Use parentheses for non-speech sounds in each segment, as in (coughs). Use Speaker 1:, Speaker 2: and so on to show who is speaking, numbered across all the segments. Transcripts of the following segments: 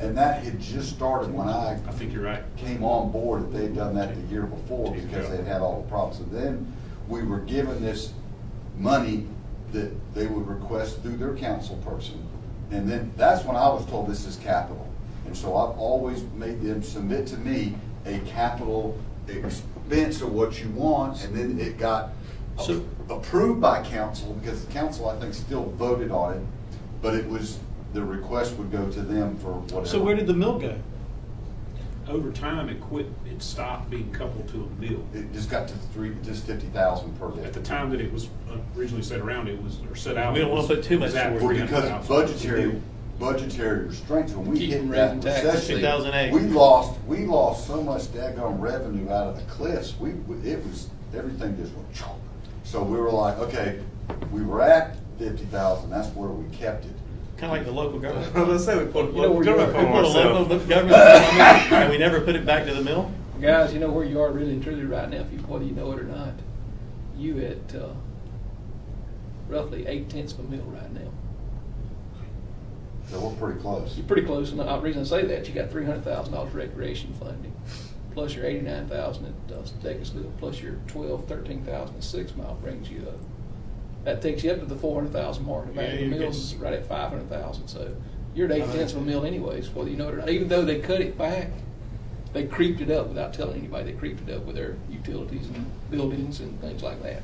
Speaker 1: And that had just started when I
Speaker 2: I think you're right.
Speaker 1: came on board that they'd done that the year before because they'd had all the problems. And then we were given this money that they would request through their council person. And then, that's when I was told this is capital. And so I've always made them submit to me a capital expense of what you want, and then it got
Speaker 2: So-
Speaker 1: approved by council, because the council, I think, still voted on it, but it was, the request would go to them for whatever.
Speaker 2: So where did the mill go? Over time, it quit, it stopped being coupled to a mill.
Speaker 1: It just got to three, just fifty thousand per day.
Speaker 2: At the time that it was originally set around, it was, or set out.
Speaker 3: We don't wanna put too much
Speaker 2: Exactly.
Speaker 1: Well,
Speaker 3: towards
Speaker 1: because budgetary, budgetary restraints, when we
Speaker 3: Keep
Speaker 1: hit that
Speaker 3: raising taxes,
Speaker 1: recession.
Speaker 3: 2008.
Speaker 1: We lost, we lost so much daggone revenue out of the cliffs, we, we- it was, everything just went chomp. So we were like, okay, we were at fifty thousand, that's where we kept it.
Speaker 3: Kind of like the local government.
Speaker 4: (laughs) I was gonna say, we put
Speaker 3: You know,
Speaker 4: local
Speaker 3: we put
Speaker 4: government on
Speaker 3: a local
Speaker 4: ourselves.
Speaker 3: government on it, and we never put it back to the mill?
Speaker 5: Guys, you know where you are really and truly right now, if you, whether you know it or not. You at, uh, roughly eight tenths of a mil right now.
Speaker 1: So we're pretty close.
Speaker 5: You're pretty close, and the uh, reason I say that, you got three hundred thousand dollars recreation funding, plus your eighty-nine thousand at uh, Stegasville, plus your twelve, thirteen thousand at Six Mile brings you up. That takes you up to the four hundred thousand mark, and
Speaker 2: Yeah,
Speaker 5: the
Speaker 2: you're
Speaker 5: mill's
Speaker 2: getting-
Speaker 5: right at five hundred thousand, so you're at eight
Speaker 3: Uh-huh.
Speaker 5: tenths of a mil anyways, whether you know it or not, even though they cut it back. They creeped it up without telling anybody, they creeped it up with their utilities and buildings and things like that.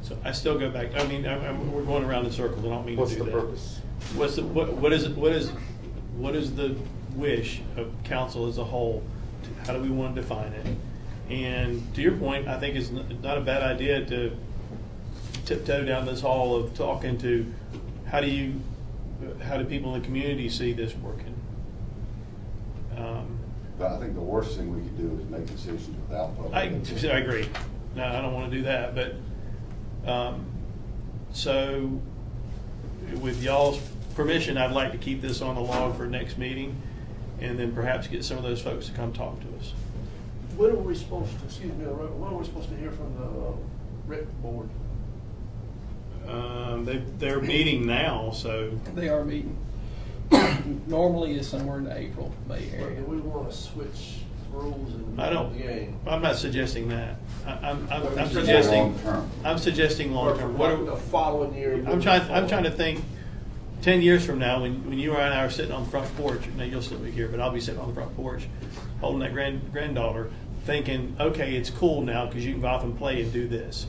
Speaker 3: So I still go back, I mean, I, I, we're going around in circles, I don't mean to
Speaker 4: What's
Speaker 3: do
Speaker 4: the
Speaker 3: that.
Speaker 4: purpose?
Speaker 3: What's the, what, what is, what is, what is the wish of council as a whole? How do we want to define it? And to your point, I think it's n- not a bad idea to tiptoe down this hall of talking to, how do you, how do people in the community see this working? Um,
Speaker 1: But I think the worst thing we could do is make decisions without public.
Speaker 3: I,
Speaker 1: input.
Speaker 3: I agree. No, I don't want to do that, but, um, so with y'all's permission, I'd like to keep this on the log for next meeting and then perhaps get some of those folks to come talk to us.
Speaker 6: When are we supposed to, excuse me, when are we supposed to hear from the uh, rec board?
Speaker 3: Um, they, they're meeting now, so
Speaker 5: They are meeting, (coughs) normally is somewhere in the April, May
Speaker 6: Or
Speaker 5: area.
Speaker 6: Do we want to switch rules and
Speaker 3: I
Speaker 6: the
Speaker 3: don't,
Speaker 6: game?
Speaker 3: I'm not suggesting that. I, I'm, I'm I'm
Speaker 6: Or
Speaker 3: suggesting,
Speaker 1: long-term.
Speaker 3: I'm suggesting
Speaker 6: Or
Speaker 3: long-term.
Speaker 6: from
Speaker 3: What
Speaker 6: like
Speaker 3: are-
Speaker 6: the following year?
Speaker 3: I'm trying, I'm trying to think, ten years from now, when, when you and I are sitting on the front porch, now you'll still be here, but I'll be sitting on the front porch, holding that grand, granddaughter, thinking, okay, it's cool now, because you can go off and play and do this.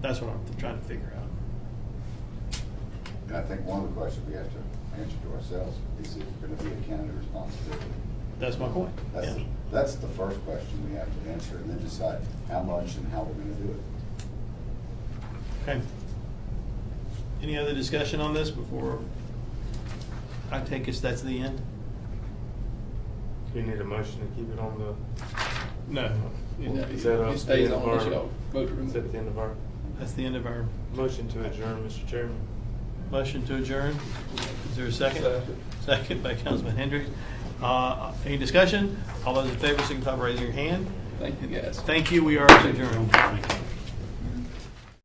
Speaker 3: That's what I'm trying to figure out.
Speaker 1: And I think one of the questions we have to answer to ourselves is if we're gonna be a county responsibility.
Speaker 3: That's my point.
Speaker 1: That's,
Speaker 3: Yeah.
Speaker 1: that's the first question we have to answer, and then decide how much and how we're gonna do it.
Speaker 3: Okay. Any other discussion on this before I take us, that's the end?
Speaker 4: Do you need a motion to keep it on the,
Speaker 3: No.
Speaker 4: Is that, uh,
Speaker 5: It stays on unless
Speaker 4: the
Speaker 5: y'all vote to
Speaker 4: is
Speaker 5: remove
Speaker 4: that the
Speaker 5: it.
Speaker 4: end of our,
Speaker 3: That's the end of our
Speaker 4: motion to adjourn, Mr. Chairman?
Speaker 3: Motion to adjourn. Is there a second?
Speaker 4: Second.
Speaker 3: Second by Councilman Hendricks. Uh, Any discussion? All those in favor signify by raising your hand.
Speaker 5: Thank you, guys.
Speaker 3: Thank you, we are adjourned.